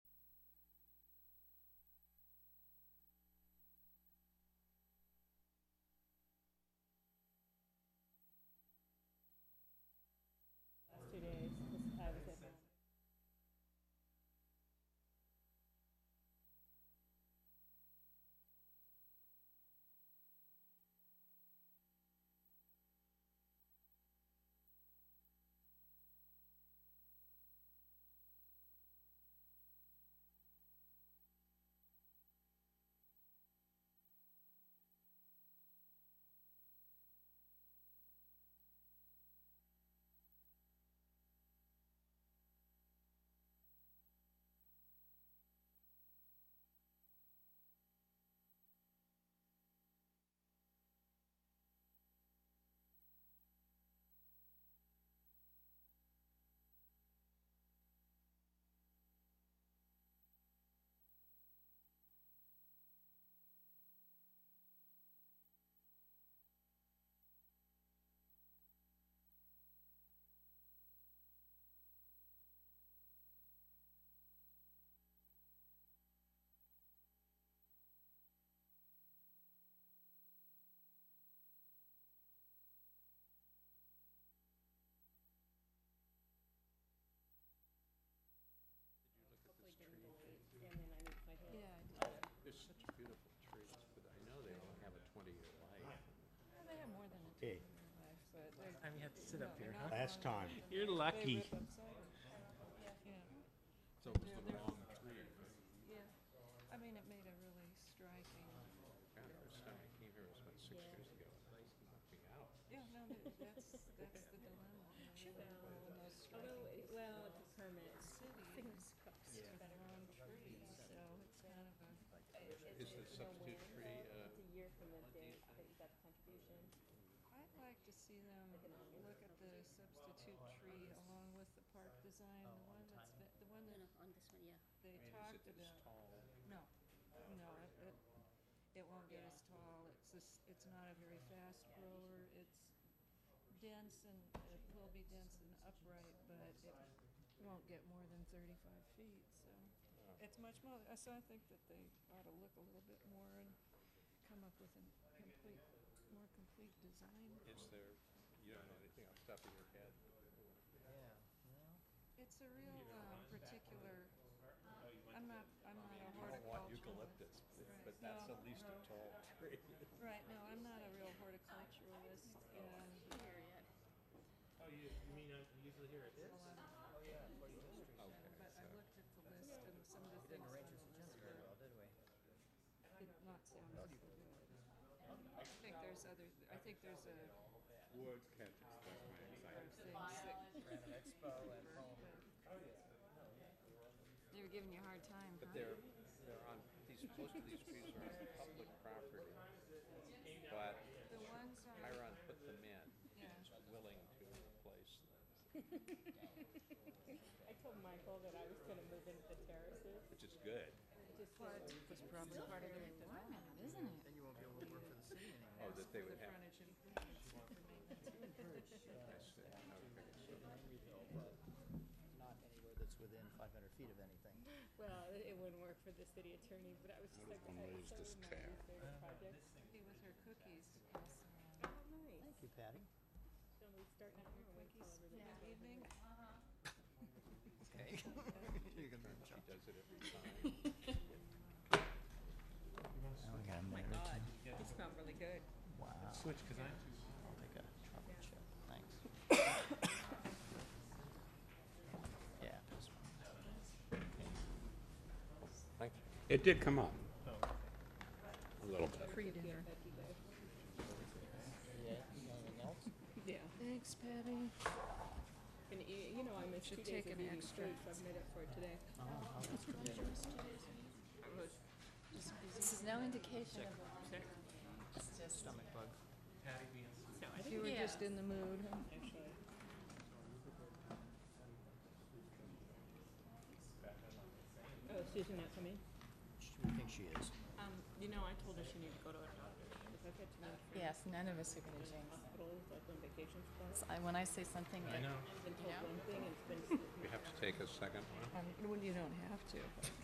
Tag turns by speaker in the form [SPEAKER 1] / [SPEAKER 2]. [SPEAKER 1] time you have to sit up here, huh?
[SPEAKER 2] Last time.
[SPEAKER 1] You're lucky.
[SPEAKER 3] So it was the wrong tree.
[SPEAKER 4] I mean, it made a really striking,
[SPEAKER 3] God, the first time I came here was about six years ago. and It knocked me out.
[SPEAKER 4] yeah, no, th- that's, that's the dilemma. Sure. The most
[SPEAKER 5] Although,
[SPEAKER 4] striking
[SPEAKER 5] it- well, the permits,
[SPEAKER 4] city
[SPEAKER 5] fingers crossed.
[SPEAKER 4] is the wrong tree, so it's kind of a,
[SPEAKER 3] Is the substitute tree, uh,
[SPEAKER 5] It's a year from the date that you got the contribution.
[SPEAKER 4] I'd like to see them look at the substitute tree along with the park design, the one that's been, the one
[SPEAKER 5] No, no, on this one, yeah.
[SPEAKER 4] that they talked
[SPEAKER 3] I mean, is it this
[SPEAKER 4] about.
[SPEAKER 3] tall?
[SPEAKER 4] No, no, it, it, it won't get as tall, it's just, it's not a very fast grower, it's dense and, it will be dense and upright, but it won't get more than thirty-five feet, so. It's much more, uh, so I think that they ought to look a little bit more and come up with a complete, more complete design.
[SPEAKER 3] Is there, you don't know anything off the top of your head?
[SPEAKER 4] It's a real, uh, particular, I'm not, I'm not a
[SPEAKER 3] You don't want
[SPEAKER 4] horticulturalist.
[SPEAKER 3] eucalyptus, but-
[SPEAKER 4] Right.
[SPEAKER 3] but that's
[SPEAKER 4] No.
[SPEAKER 3] at least a tall tree.
[SPEAKER 4] Right, no, I'm not a real horticulturalist and
[SPEAKER 5] Here yet.
[SPEAKER 1] Oh, you, you mean I usually hear it?
[SPEAKER 4] a lot of
[SPEAKER 3] Okay,
[SPEAKER 4] But I
[SPEAKER 3] so,
[SPEAKER 4] looked at the list and some of the things on the list were,
[SPEAKER 6] did we?
[SPEAKER 4] did not sound as good. I think there's other, I think there's a,
[SPEAKER 3] words can't express my
[SPEAKER 4] other
[SPEAKER 3] anxiety.
[SPEAKER 4] things that,
[SPEAKER 6] Ran an expo at home.
[SPEAKER 4] they were giving you a hard time,
[SPEAKER 3] But they're, they're on, these, most of these trees are on public property. But
[SPEAKER 4] The ones on,
[SPEAKER 3] Chiron put them in,
[SPEAKER 4] yeah,
[SPEAKER 3] willing to replace them,
[SPEAKER 5] I told Michael that I was gonna move into the terraces,
[SPEAKER 3] which is good.
[SPEAKER 5] just to
[SPEAKER 6] That's probably part of the requirement, isn't it? Then you won't be able to work for the city anymore.
[SPEAKER 3] Oh, that they
[SPEAKER 4] the
[SPEAKER 3] would have.
[SPEAKER 4] frontage improvements for maintenance.
[SPEAKER 3] I see. Okay, so
[SPEAKER 6] Greenville, but not anywhere that's within five hundred feet of anything.
[SPEAKER 5] Well, it it wouldn't work for the city attorney, but I was just like, I was so reminded of those projects.
[SPEAKER 4] Happy with her cookies.
[SPEAKER 5] Oh, nice.
[SPEAKER 6] you, Patty.
[SPEAKER 5] So we start now and we tell
[SPEAKER 4] Cookies for
[SPEAKER 5] everybody.
[SPEAKER 4] the evening.
[SPEAKER 6] Okay. You're gonna be in
[SPEAKER 3] She
[SPEAKER 6] trouble.
[SPEAKER 3] does it every time.
[SPEAKER 6] Now we got a minute or two.
[SPEAKER 5] It smelled really good.
[SPEAKER 6] Wow.
[SPEAKER 1] Switch, cause I'm.
[SPEAKER 6] I'll take a trouble chip, thanks. Yeah, this one.
[SPEAKER 3] Thank you. It did come up.
[SPEAKER 4] Oh.
[SPEAKER 3] A little bit.
[SPEAKER 4] Pre-dinner.
[SPEAKER 6] Yeah, anything else?
[SPEAKER 5] Yeah.
[SPEAKER 4] Thanks, Patty.
[SPEAKER 5] And you, you know, I missed two
[SPEAKER 4] Should
[SPEAKER 5] days
[SPEAKER 4] take
[SPEAKER 5] of
[SPEAKER 4] an
[SPEAKER 5] eating
[SPEAKER 4] extra.
[SPEAKER 5] food, so I've made up for it today.
[SPEAKER 6] Oh, oh, that's good.
[SPEAKER 5] This is no indication of.
[SPEAKER 6] Stomach bug.
[SPEAKER 1] Patty being
[SPEAKER 5] No, I
[SPEAKER 4] You
[SPEAKER 5] think,
[SPEAKER 4] were
[SPEAKER 5] yeah,
[SPEAKER 4] just in the mood, huh?
[SPEAKER 5] actually. Oh, Susan not coming?
[SPEAKER 6] She- We think she is.
[SPEAKER 5] Um, you know, I told her she needed to go to her doctor, because I've had too many friends
[SPEAKER 7] Yes, none of us are gonna
[SPEAKER 5] in
[SPEAKER 7] jinx.
[SPEAKER 5] hospitals, like on vacation spots.
[SPEAKER 7] So I, when I say something,
[SPEAKER 1] I know.
[SPEAKER 5] I've been told one thing and it's been.
[SPEAKER 3] We have to take a second one.
[SPEAKER 4] Well, you don't have to.